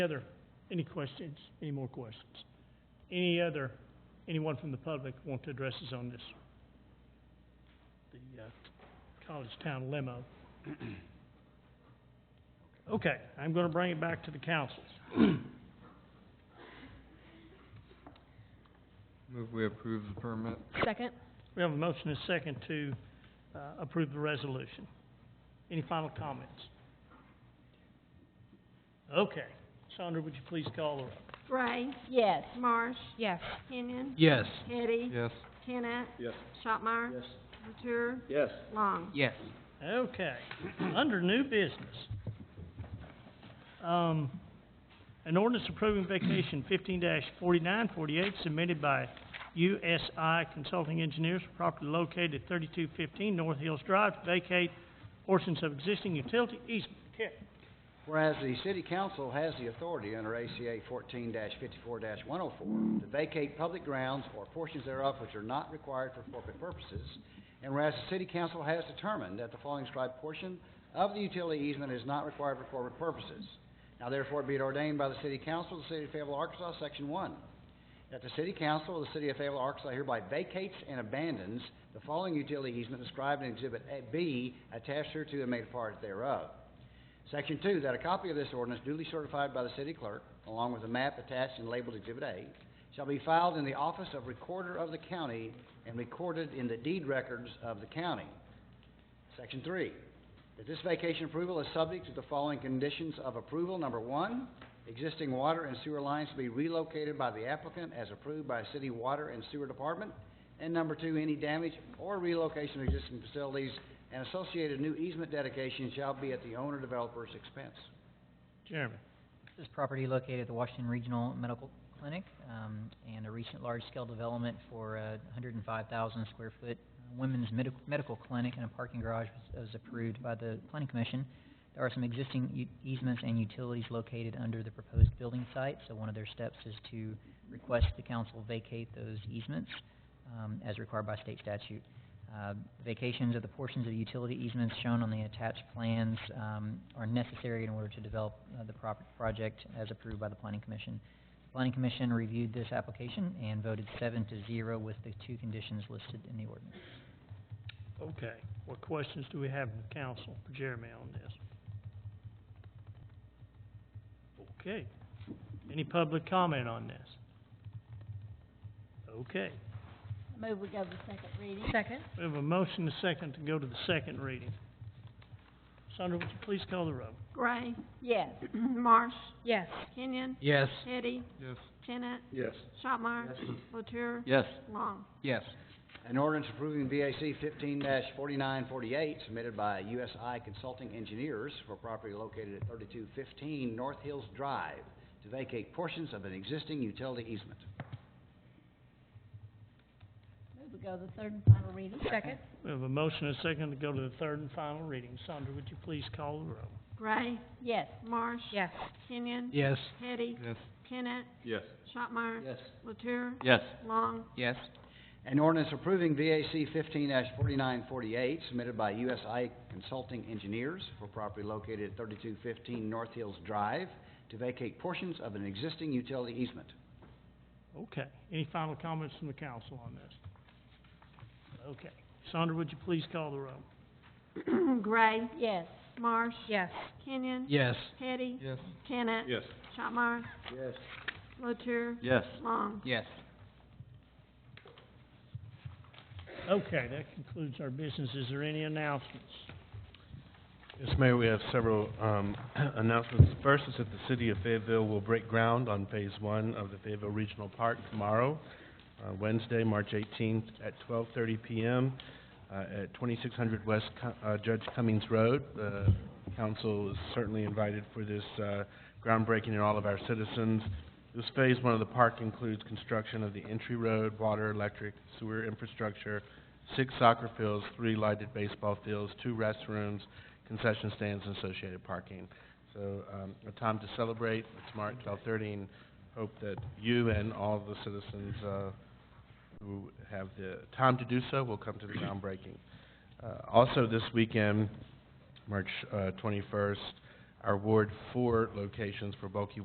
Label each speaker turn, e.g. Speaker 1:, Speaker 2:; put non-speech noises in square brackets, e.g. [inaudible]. Speaker 1: Any other, any questions, any more questions? Any other, anyone from the public want to address us on this? The, uh, College Town limo. Okay, I'm gonna bring it back to the council.
Speaker 2: Move we approve the permit.
Speaker 3: Second?
Speaker 1: We have a motion and a second to, uh, approve the resolution. Any final comments? Okay, Sandra, would you please call the roll?
Speaker 4: Ray,
Speaker 3: Yes.
Speaker 4: Marsh,
Speaker 3: Yes.
Speaker 4: Kenyon,
Speaker 2: Yes.
Speaker 4: Hetty,
Speaker 2: Yes.
Speaker 4: Tenet,
Speaker 5: Yes.
Speaker 4: Shopmire, Latour,
Speaker 5: Yes.
Speaker 4: Long.
Speaker 2: Yes.
Speaker 1: Okay, under new business. Um, an ordinance approving vacation fifteen forty-nine forty-eight submitted by USI Consulting Engineers for property located at thirty-two fifteen North Hills Drive to vacate portions of existing utility easement. Kip,
Speaker 6: Whereas the city council has the authority under ACA fourteen fifty-four one oh four to vacate public grounds or portions thereof which are not required for corporate purposes. And whereas the city council has determined that the following described portion of the utility easement is not required for corporate purposes. Now therefore be it ordained by the city council of the city of Fayetteville, Arkansas, section one. That the city council of the city of Fayetteville, Arkansas hereby vacates and abandons the following utility easement described in exhibit A- B attached hereto and made a part thereof. Section two, that a copy of this ordinance duly certified by the city clerk, along with a map attached and labeled Exhibit A, shall be filed in the office of recorder of the county and recorded in the deed records of the county. Section three, that this vacation approval is subject to the following conditions of approval. Number one, existing water and sewer lines to be relocated by the applicant as approved by city water and sewer department. And number two, any damage or relocation of existing facilities and associated new easement dedication shall be at the owner developer's expense.
Speaker 1: Jeremy.
Speaker 7: This property located at the Washington Regional Medical Clinic, um, and a recent large-scale development for a hundred and five thousand square foot uh, women's medical, medical clinic and a parking garage was, was approved by the planning commission. There are some existing u- easements and utilities located under the proposed building site, so one of their steps is to request the council vacate those easements, um, as required by state statute. Uh, vacations of the portions of utility easements shown on the attached plans, um, are necessary in order to develop, uh, the prop- project as approved by the planning commission. The Planning commission reviewed this application and voted seven to zero with the two conditions listed in the ordinance.
Speaker 1: Okay, what questions do we have in the council for Jeremy on this? Okay, any public comment on this? Okay,
Speaker 3: Move we go to second reading. Second?
Speaker 1: We have a motion and a second to go to the second reading. Sandra, would you please call the roll?
Speaker 4: Gray, [clears throat]
Speaker 3: Yes.
Speaker 4: Marsh,
Speaker 3: Yes.
Speaker 4: Kenyon,
Speaker 2: Yes.
Speaker 4: Hetty,
Speaker 2: Yes.
Speaker 4: Tenet,
Speaker 5: Yes.
Speaker 4: Shopmire, Latour,
Speaker 2: Yes.
Speaker 4: Long.
Speaker 2: Yes.
Speaker 6: An ordinance approving VAC fifteen forty-nine forty-eight submitted by USI Consulting Engineers for property located at thirty-two fifteen North Hills Drive to vacate portions of an existing utility easement.
Speaker 3: Move we go to third and final reading. Second?
Speaker 1: We have a motion and a second to go to the third and final reading. Sandra, would you please call the roll?
Speaker 4: Gray,
Speaker 3: Yes.
Speaker 4: Marsh,
Speaker 3: Yes.
Speaker 4: Kenyon,
Speaker 2: Yes.
Speaker 4: Hetty,
Speaker 2: Yes.
Speaker 4: Tenet,
Speaker 5: Yes.
Speaker 4: Shopmire,
Speaker 6: Yes.
Speaker 4: Latour,
Speaker 2: Yes.
Speaker 4: Long. [clears throat]
Speaker 2: Yes.
Speaker 6: An ordinance approving VAC fifteen forty-nine forty-eight submitted by USI Consulting Engineers for property located at thirty-two fifteen North Hills Drive to vacate portions of an existing utility easement.
Speaker 1: Okay, any final comments from the council on this? Okay, Sandra, would you please call the roll?
Speaker 4: Gray,
Speaker 3: Yes.
Speaker 4: Marsh,
Speaker 3: Yes.
Speaker 4: Kenyon,
Speaker 2: Yes.
Speaker 4: Hetty,
Speaker 2: Yes.
Speaker 4: Tenet,
Speaker 5: Yes.
Speaker 4: Shopmire,
Speaker 6: Yes.
Speaker 4: Latour,
Speaker 2: Yes.
Speaker 4: Long.
Speaker 2: Yes.
Speaker 1: Okay, that concludes our business. Is there any announcements?
Speaker 8: Yes, Mayor, we have several um, [clears throat] announcements. First is that the city of Fayetteville will break ground on Phase One of the Fayetteville Regional Park tomorrow, uh, Wednesday, March eighteenth, at twelve thirty PM uh, at twenty-six hundred West Co- uh, Judge Cummings Road. The council is certainly invited for this uh, groundbreaking and all of our citizens. This Phase One of the park includes construction of the entry road, water, electric, sewer infrastructure, six soccer fields, three lighted baseball fields, two restrooms, concession stands and associated parking. So, um, a time to celebrate, it's March twelve thirty, and hope that you and all the citizens, uh, who have the time to do so will come to the groundbreaking. Uh, also this weekend, March, uh, twenty-first, our Ward Four locations for bulky